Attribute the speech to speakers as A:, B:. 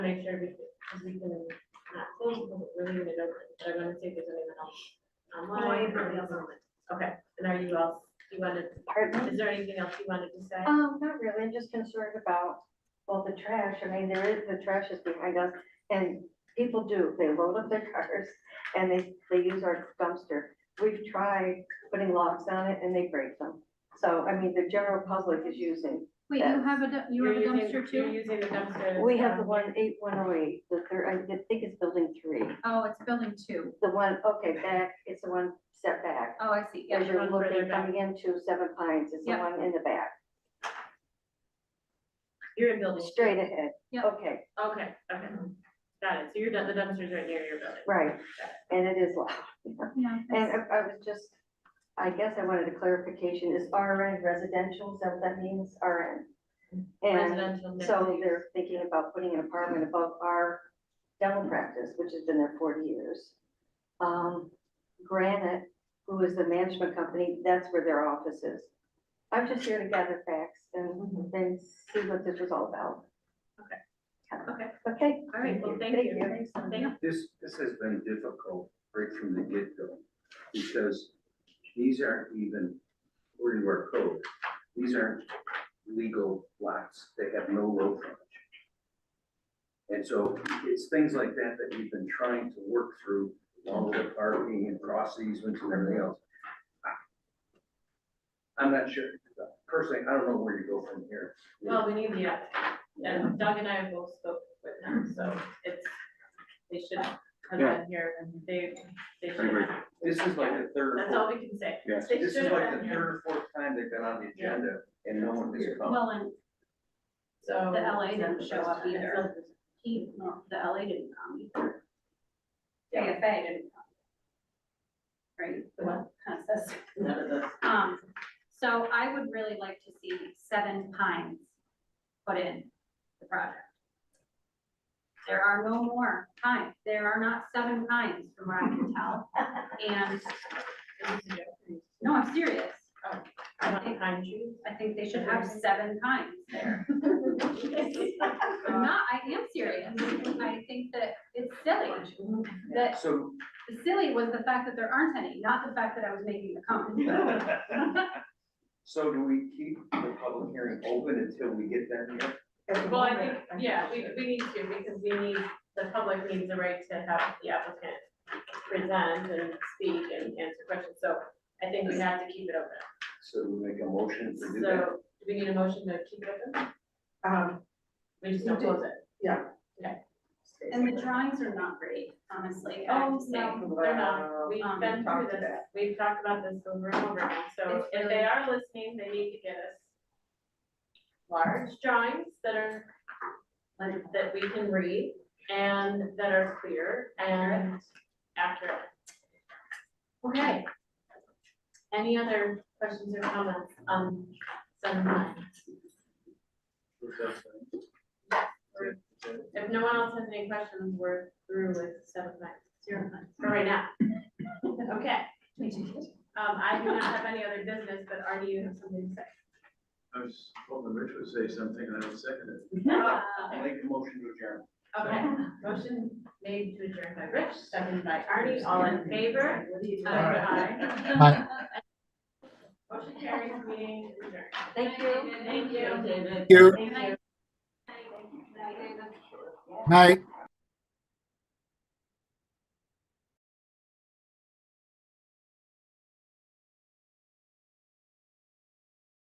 A: sure we, because we can not close, but we're leaving it open, so I'm gonna see if there's anyone else online.
B: anybody else
A: Okay, and are you all, you wanted,
C: Pardon?
A: is there anything else you wanted to say?
C: Um, not really, I'm just concerned about, well, the trash, I mean, there is, the trash is behind us, and people do, they load up their cars, and they, they use our dumpster. We've tried putting locks on it, and they break them, so, I mean, the general public is using.
B: Wait, you have a, du- you have a
A: You're using-
B: dumpster
A: You're
B: too?
A: using the dumpster.
C: We have the
A: um,
C: one eight one oh eight, the third, I think it's building three,
B: Oh, it's building two.
C: the one, okay, back, it's the one set back.
B: Oh, I see, yeah.
C: As you're
A: one further
C: looking,
A: back.
C: coming into Seven Pines, it's the
B: Yeah.
C: one in the back,
A: You're in building. two.
C: straight ahead.
B: Yeah.
C: Okay,
A: Okay, okay, got it, so you're done, the dumpster's right near your building.
C: right, and it is loud.
B: Yeah,
C: And
B: that's-
C: I I was just, I guess I wanted a clarification, is RN residential, is that what that means, RN? And
A: Residential mixed
C: so
A: use.
C: they're thinking about putting an apartment above our dental practice, which has been there forty years. Um, Granite, who is the management company, that's where their office is. I'm just here to gather facts and
A: Mhm.
C: then see what this was all about.
A: Okay.
C: Yeah.
A: Okay.
C: Okay.
A: All right, well, thank
C: Thank
A: you.
C: you.
A: Thanks, Thank you.
D: This, this has been difficult right from the get-go, because these aren't even, according to our code, these aren't legal lots, they have no road frontage. And so it's things like that that we've been trying to work through, along with the parking and cross easements and everything else. I- I'm not sure, personally, I don't know where you go from here.
A: Well, we need the, app. and Doug and I both spoke with them, so it's, they should have been here, and they, they should
E: agree.
A: have.
D: This is like the third or
A: That's
D: fourth
A: all we can say.
E: Yes.
A: They
D: This
A: should
D: is
A: have
D: like
A: been
D: the
A: here.
D: third or fourth time they've been on the
A: Yeah.
D: agenda and no one has come.
F: Well, and
A: So.
F: The LA didn't
A: it's
F: show up
A: just-
F: either. he, no, the LA didn't come either.
A: Yeah.
F: JFA didn't come. Right?
A: The what?
F: Consensus.
A: None of this.
F: Um, so I would really like to see Seven Pines put in the project. There are no more pines, there are not seven pines from what I can tell, and,
A: This is a joke.
F: no, I'm serious.
A: I want pine trees.
F: I think they should have seven pines there. I'm not, I am serious, I think that it's silly, that
D: So,
F: The silly was the fact that there aren't any, not the fact that I was making the comment.
D: so do we keep the public hearing open until we get them here?
A: Well, I think, yeah, we, we need to, because we need, the public needs the right to have the applicant present and speak and answer questions, so I think we have to keep it open.
D: So we make a motion to do
A: So,
D: that?
A: do we need a motion to keep it open?
G: Um,
A: We just don't
G: We do.
A: close it.
F: And the drawings are not great, honestly, I have to say.
A: They're not, we've
F: Um,
A: been through
G: talk to
A: this,
G: that.
A: we've talked about this over and over again, so
F: It's
A: if they
F: really-
A: are listening, they need to get us large drawings that are, like, that we can read and that are clear and accurate. Okay. Any other questions or comments Um, on seven nine? If no one else has any questions, we're through with seven nine, zero nine, for right now. Okay. Um, I do not have any other business, but Artie, you have something to say.
E: I was hoping Rich would say something and I would second it.
F: Uh,
D: I'll make a motion to adjourn.
A: Oh, Okay, motion made to adjourn by Rich, seconded by Artie, all in favor? Aye.
H: Aye.
A: Motion carries, meeting adjourned.
C: Thank you.
A: Thank you, David.
H: you.
F: Thank you. Thank you.
H: Night.